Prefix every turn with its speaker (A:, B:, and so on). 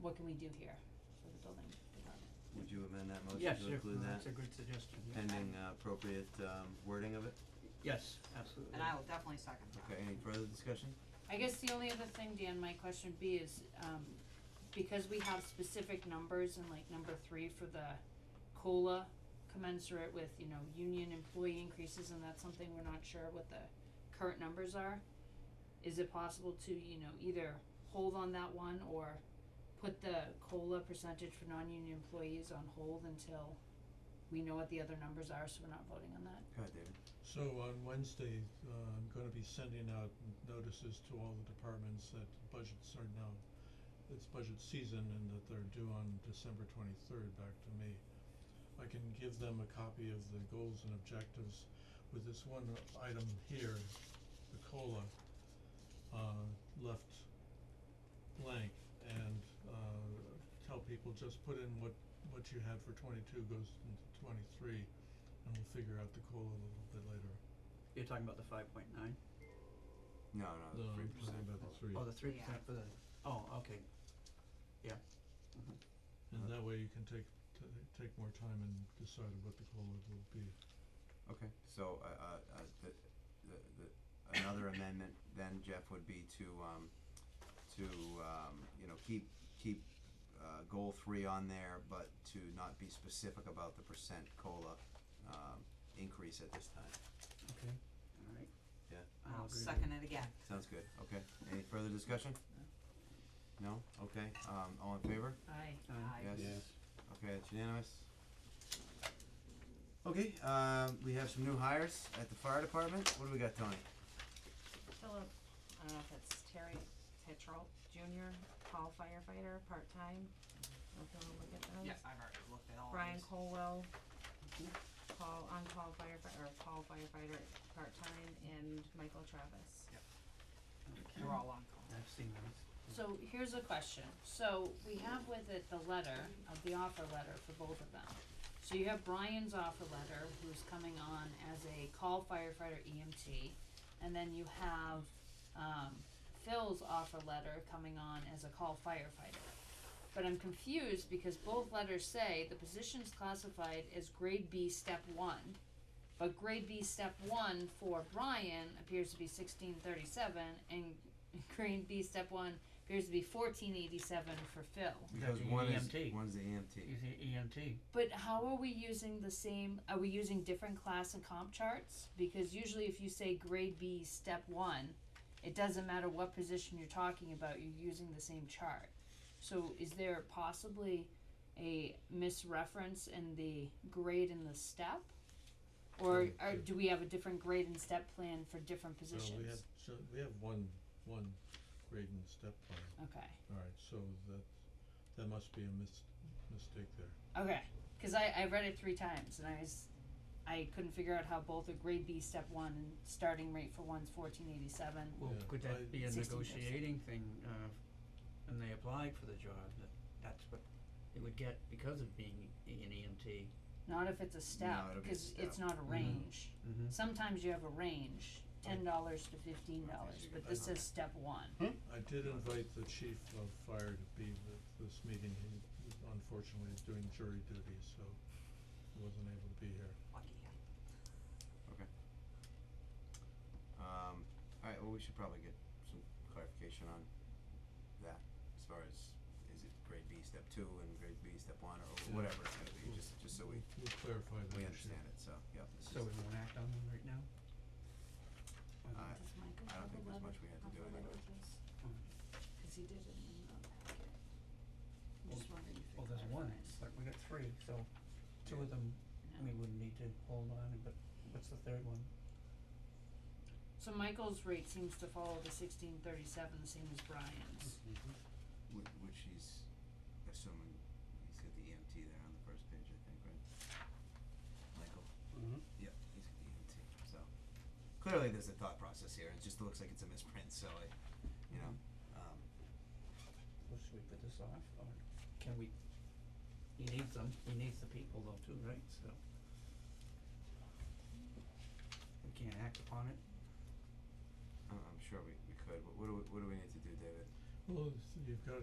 A: what can we do here for the building department?
B: Would you amend that motion
C: Yes,
B: to
C: sure,
B: include that
C: that's a good suggestion, yeah.
B: pending uh, appropriate um, wording of it?
C: Yes, absolutely.
D: And I will definitely second that.
B: Okay, any further discussion?
A: I guess the only other thing, Dan, my question would be is, um, because we have specific numbers and like number three for the COLA commensurate with, you know, union employee increases and that's something we're not sure what the current numbers are. Is it possible to, you know, either hold on that one or put the COLA percentage for non-union employees on hold until we know what the other numbers are, so we're not voting on that?
B: Go ahead, David.
E: So on Wednesday, uh, I'm gonna be sending out notices to all the departments that budgets are now, it's budget season and that they're due on December twenty-third back to me. I can give them a copy of the goals and objectives with this one item here, the COLA, uh, left blank and, uh, tell people just put in what, what you had for twenty-two goes into twenty-three and we'll figure out the COLA a little bit later.
C: You're talking about the five point nine?
B: No, no,
E: No,
B: three
E: I'm
B: percent.
E: talking about the three,
C: Oh, the three
D: Yeah.
C: percent for the, oh, okay. Yeah. Mhm.
E: and that way you can take, t- take more time and decide what the COLA will be.
B: Okay, so, uh, uh, uh, the, the, the, another amendment then, Jeff, would be to, um, to, um, you know, keep, keep, uh, goal three on there, but to not be specific about the percent COLA, um, increase at this time.
C: Okay, alright.
B: Yeah.
C: I'll
D: I'll
C: agree with-
D: second it again.
B: Sounds good, okay. Any further discussion? No? Okay, um, all in favor?
A: Aye.
C: Aye.
B: Yes.
E: Yes.
B: Okay, it's unanimous. Okay, um, we have some new hires at the fire department. What do we got, Tony?
F: Philip, I don't know if it's Terry Tetrell Junior, Paul firefighter, part-time, I don't know if you wanna look at those.
D: Yes, I've already looked at all
F: Brian
D: these.
F: Colwell,
C: Mhm.
F: Paul, on-call firefighter, or Paul firefighter, part-time, and Michael Travis.
D: They're all on call.
C: I've seen those.
A: So here's a question. So we have with it the letter of the offer letter for both of them. So you have Brian's offer letter, who's coming on as a call firefighter EMT, and then you have um, Phil's offer letter coming on as a call firefighter. But I'm confused because both letters say the position's classified as grade B step one. But grade B step one for Brian appears to be sixteen thirty seven and grade B step one appears to be fourteen eighty seven for Phil.
B: Because
C: the E
B: one is,
C: EMT.
B: one's the E EMT.
C: He's the EMT.
A: But how are we using the same are we using different class and comp charts? Because usually if you say grade B step one, it doesn't matter what position you're talking about, you're using the same chart. So is there possibly a misreference in the grade and the step? Or
E: Yeah,
A: or
E: yeah.
A: do we have a different grade and step plan for different
E: So
A: positions?
E: we have, so we have one, one grade and step plan,
A: Okay.
E: alright, so that, that must be a mis- mistake there.
A: Okay, because I, I read it three times and I was I couldn't figure out how both a grade B step one and starting rate for one's fourteen eighty seven.
C: Well,
E: Yeah.
C: could
E: I-
C: that be a
A: 16%.
C: negotiating thing, uh, and they applied for the job, that, that's what they would get because of being e- an EMT.
A: Not if it's a step,
B: No, it'll be a
A: because it's
B: step.
A: not a range.
C: Mm-hmm.
A: Sometimes you have a range, ten dollars to fifteen dollars,
B: you
A: but
B: can
A: this
B: buy
A: says step one.
E: I did invite the chief of fire to be with this meeting, he unfortunately is doing jury duty, so he wasn't able to be here.
D: Lucky him.
B: Um, alright, well, we should probably get some clarification on that, as far as, is it grade B step two and grade B step one, or
E: Yeah.
B: whatever it's gonna be, just, just so we,
E: We'll clarify that
B: we
E: issue.
B: understand it, so, yeah. this
C: So
B: is-
C: we won't act on them right now?
B: Uh,
C: Um,
A: Does Michael
B: I
A: have a
B: don't think there's
A: letter?
B: much we have to do
A: Offer
B: anyway.
A: letter with this?
C: Mm.
A: 'Cause he did it in the packet. I'm
C: Well,
A: just wondering if
C: Well,
A: it
C: there's one,
A: clarifies.
C: but we got three, so two of them, we wouldn't need to hold on, but what's the third one?
A: So Michael's rate seems to follow the sixteen thirty seven, the same as Brian's.
B: Which, which he's assuming, he's got the EMT there on the first page, I think, right? Michael?
C: Mhm.
B: Yep, he's got the EMT, so. Clearly, there's a thought process here, it just looks like it's a misprint, so I, you know, um,
C: Well, should we put this off, or can we, he needs them, he needs the people though too, right, so. We can't act upon it,
B: I- I'm sure we, we could, what, what do we, what do we need to do, David?
E: Well, you've got